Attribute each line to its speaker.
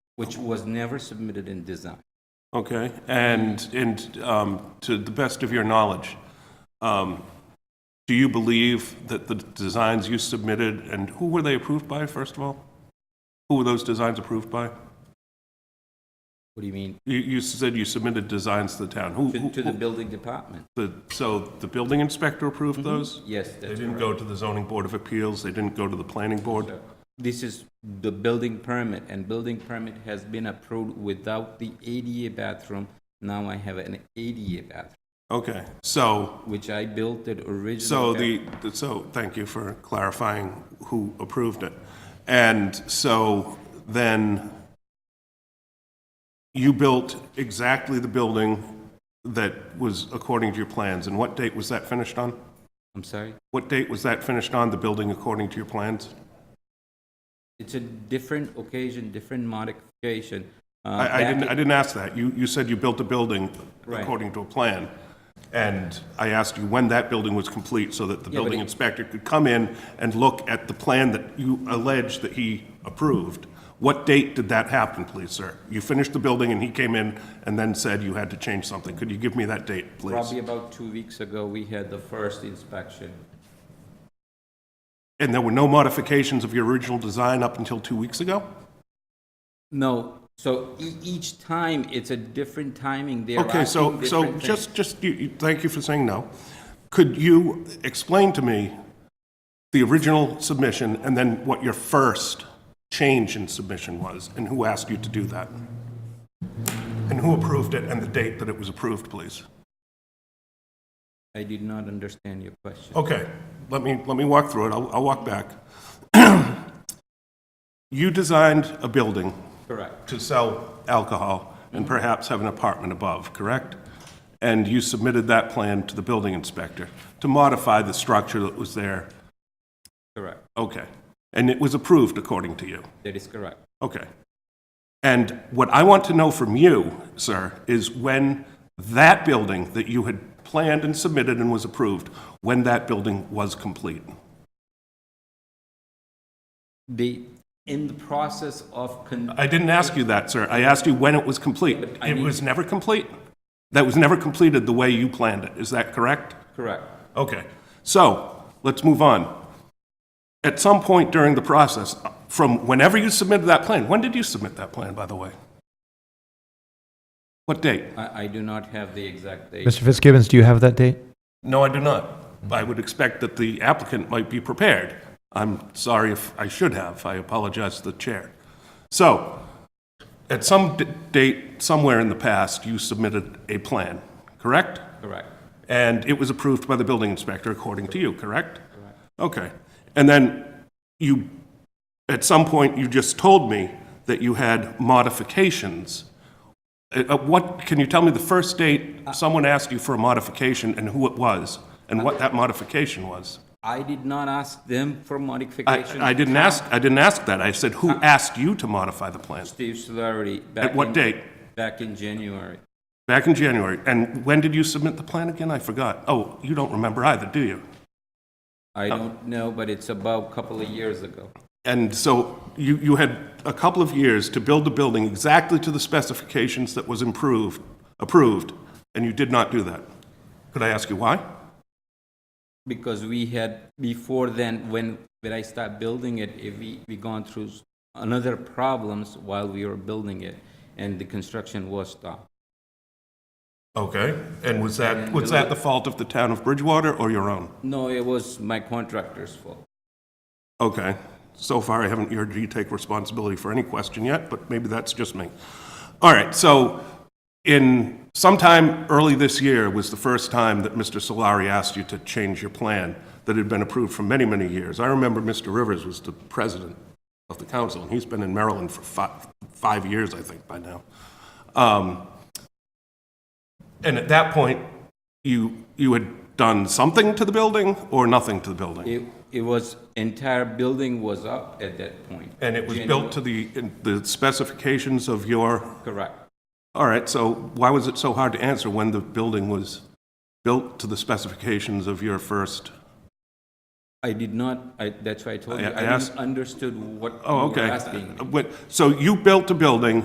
Speaker 1: which was never submitted in design.
Speaker 2: Okay, and, and um, to the best of your knowledge, um, do you believe that the designs you submitted, and who were they approved by, first of all? Who were those designs approved by?
Speaker 1: What do you mean?
Speaker 2: You, you said you submitted designs to the town. Who,
Speaker 1: To, to the
Speaker 2: who-
Speaker 1: building department?
Speaker 2: the, so the building inspector approved those?
Speaker 1: Yes,
Speaker 2: They
Speaker 1: Mm-hmm. that's
Speaker 2: didn't
Speaker 1: correct.
Speaker 2: go to the zoning board of appeals, they didn't go to the planning board?
Speaker 1: This is the building permit, and building permit has been approved without the ADA bathroom. Now I have an ADA bathroom,
Speaker 2: Okay, so
Speaker 1: which I built it originally.
Speaker 2: So the, so, thank you for clarifying who approved it. And so then you built exactly the building that was according to your plans, and what date was that finished on?
Speaker 1: I'm sorry?
Speaker 2: What date was that finished on, the building according to your plans?
Speaker 1: It's a different occasion, different modification. Uh,
Speaker 2: I, I
Speaker 1: back
Speaker 2: didn't,
Speaker 1: in-
Speaker 2: I didn't ask that. You, you said you built a building
Speaker 1: Right.
Speaker 2: according to a plan. And I asked you when that building was complete so that the
Speaker 1: Yeah, but
Speaker 2: building
Speaker 1: it-
Speaker 2: inspector could come in and look at the plan that you allege that he approved. What date did that happen, please, sir? You finished the building and he came in and then said you had to change something. Could you give me that date, please?
Speaker 1: Probably about two weeks ago, we had the first inspection.
Speaker 2: And there were no modifications of your original design up until two weeks ago?
Speaker 1: No, so e- each time, it's a different timing. They're
Speaker 2: Okay, so,
Speaker 1: asking
Speaker 2: so
Speaker 1: different things.
Speaker 2: just, just, you- you- thank you for saying no. Could you explain to me the original submission and then what your first change in submission was and who asked you to do that? And who approved it and the date that it was approved, please?
Speaker 1: I did not understand your question.
Speaker 2: Okay, let me, let me walk through it. I'll, I'll walk back. You designed a building
Speaker 1: Correct.
Speaker 2: to sell alcohol and perhaps have an apartment above, correct? And you submitted that plan to the building inspector to modify the structure that was there?
Speaker 1: Correct.
Speaker 2: Okay. And it was approved according to you?
Speaker 1: That is correct.
Speaker 2: Okay. And what I want to know from you, sir, is when that building that you had planned and submitted and was approved, when that building was complete?
Speaker 1: The, in the process of, con-
Speaker 2: I didn't ask you that, sir. I asked you when it was complete.
Speaker 1: I
Speaker 2: It
Speaker 1: need-
Speaker 2: was never complete? That was never completed the way you planned it, is that correct?
Speaker 1: correct.
Speaker 2: Okay, so, let's move on. At some point during the process, from whenever you submitted that plan, when did you submit that plan, by the way? What date?
Speaker 1: I, I do not have the exact date.
Speaker 3: Mr. Fitzgibbons, do you have that date?
Speaker 2: No, I do not. I would expect that the applicant might be prepared. I'm sorry if I should have, I apologize to the chair. So, at some d- date, somewhere in the past, you submitted a plan, correct?
Speaker 1: Correct.
Speaker 2: And it was approved by the building inspector, according to you, correct? Okay. And then you, at some point, you just told me that you had modifications. Uh, uh, What, can you tell me the first date someone asked you for a modification and who it was? And what that modification was?
Speaker 1: I did not ask them for modification.
Speaker 2: I, I didn't ask, I didn't ask that. I said, who asked you to modify the plan?
Speaker 1: Steve Solari.
Speaker 2: At what date?
Speaker 1: Back in January.
Speaker 2: Back in January. And when did you submit the plan again? I forgot. Oh, you don't remember either, do you?
Speaker 1: I
Speaker 2: Oh.
Speaker 1: don't know, but it's about a couple of years ago.
Speaker 2: And so you, you had a couple of years to build the building exactly to the specifications that was improved, approved, and you did not do that. Could I ask you why?
Speaker 1: Because we had, before then, when, when I started building it, if we, we gone through s- another problems while we were building it, and the construction was stopped.
Speaker 2: Okay, and was that, was that the fault of the town of Bridgewater or your own?
Speaker 1: No, it was my contractor's fault.
Speaker 2: Okay, so far I haven't heard you take responsibility for any question yet, but maybe that's just me. All right, so in sometime early this year was the first time that Mr. Solari asked you to change your plan that had been approved for many, many years. I remember Mr. Rivers was the president of the council, and he's been in Maryland for five, five years, I think, by now. Um, And at that point, you, you had done something to the building or nothing to the building?
Speaker 1: It, it was, entire building was up at that point.
Speaker 2: And it was built to the, in the specifications of your,
Speaker 1: Correct.
Speaker 2: all right, so why was it so hard to answer when the building was built to the specifications of your first?
Speaker 1: I did not, I, that's why I told
Speaker 2: I-
Speaker 1: you,
Speaker 2: I
Speaker 1: I
Speaker 2: asked-
Speaker 1: didn't understood what you
Speaker 2: Oh,
Speaker 1: were
Speaker 2: okay.
Speaker 1: asking.
Speaker 2: Uh, what- So you built a building